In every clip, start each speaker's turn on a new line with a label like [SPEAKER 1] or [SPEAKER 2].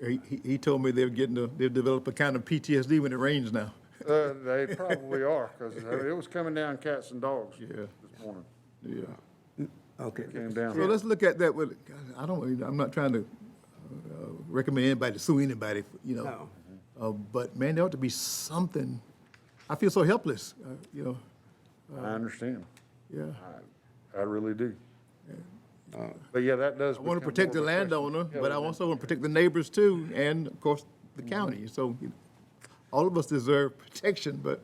[SPEAKER 1] He, he- he told me they're getting, a- they've developed a kind of PTSD when it rains now.
[SPEAKER 2] Uh, They probably are, because it was coming down cats and dogs
[SPEAKER 1] Yeah.
[SPEAKER 2] this morning.
[SPEAKER 1] Yeah.
[SPEAKER 3] Okay.
[SPEAKER 2] Came
[SPEAKER 1] So
[SPEAKER 2] down.
[SPEAKER 1] let's look at that with, God, I don't, even- I'm not trying to uh, recommend anybody to sue anybody, you know.
[SPEAKER 3] No.
[SPEAKER 1] Uh, But man, there ought to be something. I feel so helpless, uh, you know,
[SPEAKER 2] I understand.
[SPEAKER 1] yeah.
[SPEAKER 2] I really do. But yeah, that does.
[SPEAKER 1] I want to protect the landowner, but I also want to protect the neighbors too, and of course, the county. So you know, all of us deserve protection, but,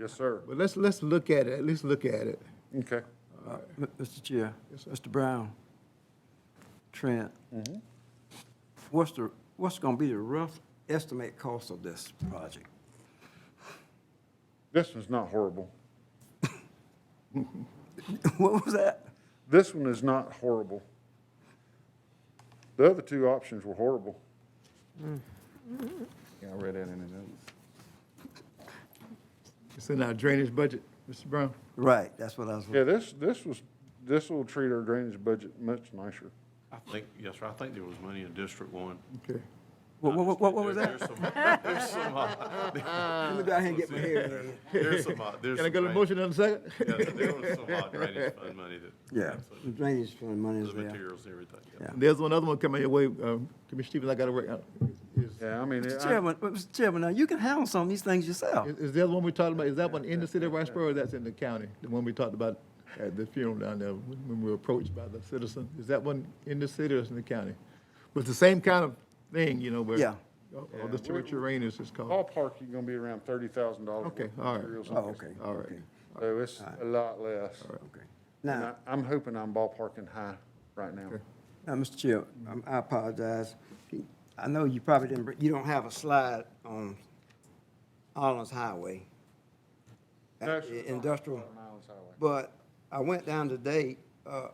[SPEAKER 2] Yes, sir.
[SPEAKER 1] but let's, let's look at it, let's look at it.
[SPEAKER 2] Okay.
[SPEAKER 3] Uh, M- Mr. Chair, Mr. Brown, Trent, what's the, what's gonna be the rough estimate cost of this project?
[SPEAKER 2] This one's not horrible.
[SPEAKER 3] What was that?
[SPEAKER 2] This one is not horrible. The other two options were horrible.
[SPEAKER 4] Yeah, I read that in the notes.
[SPEAKER 1] It's in our drainage budget, Mr. Brown.
[SPEAKER 3] Right, that's what I was,
[SPEAKER 2] Yeah, this, this was, this will treat our drainage budget much nicer.
[SPEAKER 5] I think, yes, sir, I think there was money in District One.
[SPEAKER 1] Okay.
[SPEAKER 3] what, what, what what was
[SPEAKER 5] There-
[SPEAKER 3] that?
[SPEAKER 5] There's some, there's some, uh,
[SPEAKER 3] Let me go ahead and get my hair in there.
[SPEAKER 5] there's some, uh, there's.
[SPEAKER 1] Can I
[SPEAKER 5] some
[SPEAKER 1] get a
[SPEAKER 5] drain-
[SPEAKER 1] motion in a second?
[SPEAKER 5] Yeah, there was some uh, drainage fund money that.
[SPEAKER 3] Yeah, the
[SPEAKER 5] absolutely,
[SPEAKER 3] drainage fund money is
[SPEAKER 5] The
[SPEAKER 3] there.
[SPEAKER 5] materials and everything, yeah.
[SPEAKER 3] Yeah.
[SPEAKER 1] There's one other one coming your way, um, Commissioner Stevens, I gotta work out. Is,
[SPEAKER 2] Yeah, I mean,
[SPEAKER 3] Mr.
[SPEAKER 2] I-
[SPEAKER 3] Chairman, uh, Mr. Chairman, now you can handle some of these things yourself.
[SPEAKER 1] is- is the other one we talked about, is that one in the city of Riceboro or that's in the county? The one we talked about at the funeral down there, when when we were approached by the citizen, is that one in the city or is it in the county? But the same kind of thing, you know, where.
[SPEAKER 3] Yeah.
[SPEAKER 1] All all the terrains is called.
[SPEAKER 2] ballpark, you're gonna be around thirty thousand dollars.
[SPEAKER 1] Okay, all right.
[SPEAKER 3] Oh, okay.
[SPEAKER 1] All right.
[SPEAKER 3] okay,
[SPEAKER 2] So it's a lot less.
[SPEAKER 3] Okay.
[SPEAKER 2] And
[SPEAKER 3] Now,
[SPEAKER 2] I- I'm hoping I'm ballparking high right now.
[SPEAKER 3] Now, Mr. Chair, um, I apologize. I know you probably didn't, bring- you don't have a slide on Allen's Highway. uh,
[SPEAKER 2] No, sir.
[SPEAKER 3] Industrial,
[SPEAKER 2] On Islands Highway.
[SPEAKER 3] but I went down today, uh,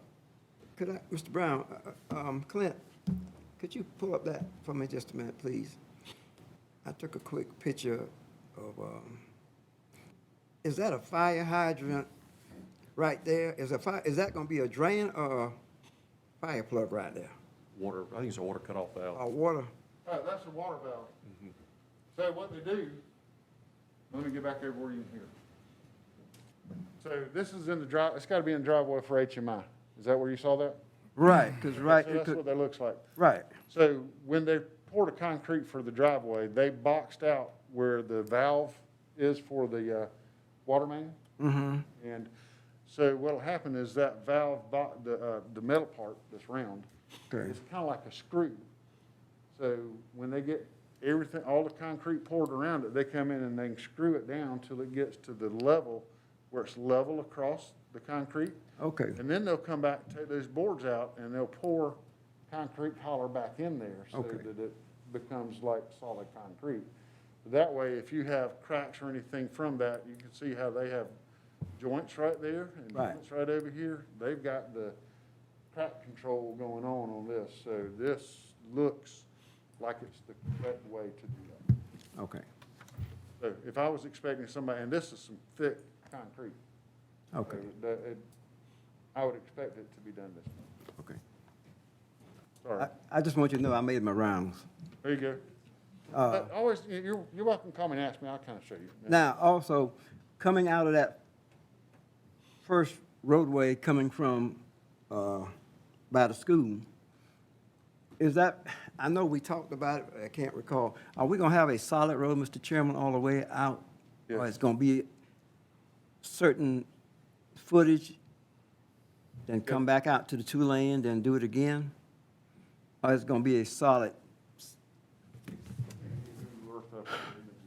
[SPEAKER 3] could I, Mr. Brown, uh, um, Clint, could you pull up that for me just a minute, please? I took a quick picture of, um, is that a fire hydrant right there? Is a fire, is that gonna be a drain or a fire plug right there?
[SPEAKER 5] Water, I think it's a water cutoff valve.
[SPEAKER 3] Or water?
[SPEAKER 2] Oh, that's the water valve. So what they do, let me get back over where you can hear. So this is in the drive, it's gotta be in the driveway for HMI. Is that where you saw that?
[SPEAKER 3] Right, because right,
[SPEAKER 2] So
[SPEAKER 3] you
[SPEAKER 2] that's
[SPEAKER 3] could,
[SPEAKER 2] what that looks like.
[SPEAKER 3] right,
[SPEAKER 2] So when they poured the concrete for the driveway, they boxed out where the valve is for the uh, water main.
[SPEAKER 3] Mm-hmm.
[SPEAKER 2] And so what'll happen is that valve, bo- the, uh, the metal part that's round,
[SPEAKER 3] Okay.
[SPEAKER 2] it's kind of like a screw. So when they get everything, all the concrete poured around it, they come in and they can screw it down till it gets to the level where it's level across the concrete.
[SPEAKER 3] okay,
[SPEAKER 2] And then they'll come back, take those boards out, and they'll pour concrete hollow back in there so
[SPEAKER 3] Okay.
[SPEAKER 2] that it becomes like solid concrete. That way, if you have cracks or anything from that, you can see how they have joints right there and
[SPEAKER 3] Right.
[SPEAKER 2] joints right over here. They've got the crack control going on on this, so this looks like it's the correct way to do that.
[SPEAKER 3] okay,
[SPEAKER 2] So if I was expecting somebody, and this is some thick concrete. so
[SPEAKER 3] okay,
[SPEAKER 2] it- it- I would expect it to be done this way.
[SPEAKER 3] okay.
[SPEAKER 2] Sorry.
[SPEAKER 3] I, I just want you to know I made my rounds.
[SPEAKER 2] There you go.
[SPEAKER 3] Uh,
[SPEAKER 2] But Always, you- you're, you're welcome to come and ask me. I'll kind of show you.
[SPEAKER 3] Now, also, coming out of that first roadway coming from, uh, by the school, is that, I know we talked about it, but I can't recall. Are we gonna have a solid road, Mr. Chairman, all the way out? Or
[SPEAKER 2] Yes.
[SPEAKER 3] it's gonna be certain footage, then come back out to the two lane, then do it again? Or it's gonna be a solid,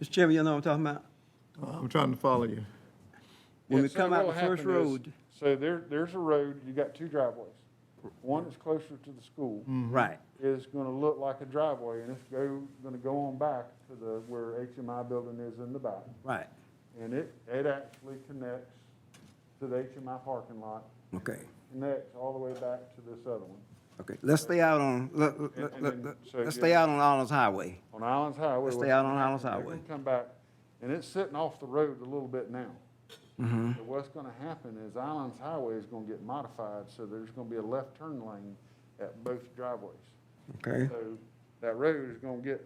[SPEAKER 3] Mr. Chairman, you know what I'm talking about?
[SPEAKER 1] Uh, I'm trying to follow you.
[SPEAKER 3] When
[SPEAKER 2] Yeah,
[SPEAKER 3] we
[SPEAKER 2] so
[SPEAKER 3] come out
[SPEAKER 2] what'll
[SPEAKER 3] the first
[SPEAKER 2] happen is-
[SPEAKER 3] road.
[SPEAKER 2] So there, there's a road, you got two driveways. One is closer to the school,
[SPEAKER 3] Right.
[SPEAKER 2] is going to look like a driveway, and it's go, going to go on back to the, where HMI building is in the back.
[SPEAKER 3] Right,
[SPEAKER 2] And it, it actually connects to the HMI parking lot,
[SPEAKER 3] okay,
[SPEAKER 2] connects all the way back to this other one.
[SPEAKER 3] okay. Let's stay out on, let,
[SPEAKER 2] And-
[SPEAKER 3] let,
[SPEAKER 2] and
[SPEAKER 3] let,
[SPEAKER 2] then-
[SPEAKER 3] let-
[SPEAKER 2] so
[SPEAKER 3] let's
[SPEAKER 2] you-
[SPEAKER 3] stay out on Allen's Highway.
[SPEAKER 2] On Islands Highway.
[SPEAKER 3] Let's stay
[SPEAKER 2] what's
[SPEAKER 3] out
[SPEAKER 2] gonna
[SPEAKER 3] on Islands
[SPEAKER 2] happen, they're
[SPEAKER 3] Highway.
[SPEAKER 2] gonna Come back, and it's sitting off the road a little bit now.
[SPEAKER 3] Mm-hmm.
[SPEAKER 2] So what's gonna happen is Islands Highway is gonna get modified, so there's gonna be a left turn lane at both driveways.
[SPEAKER 3] Okay.
[SPEAKER 2] So that road is gonna get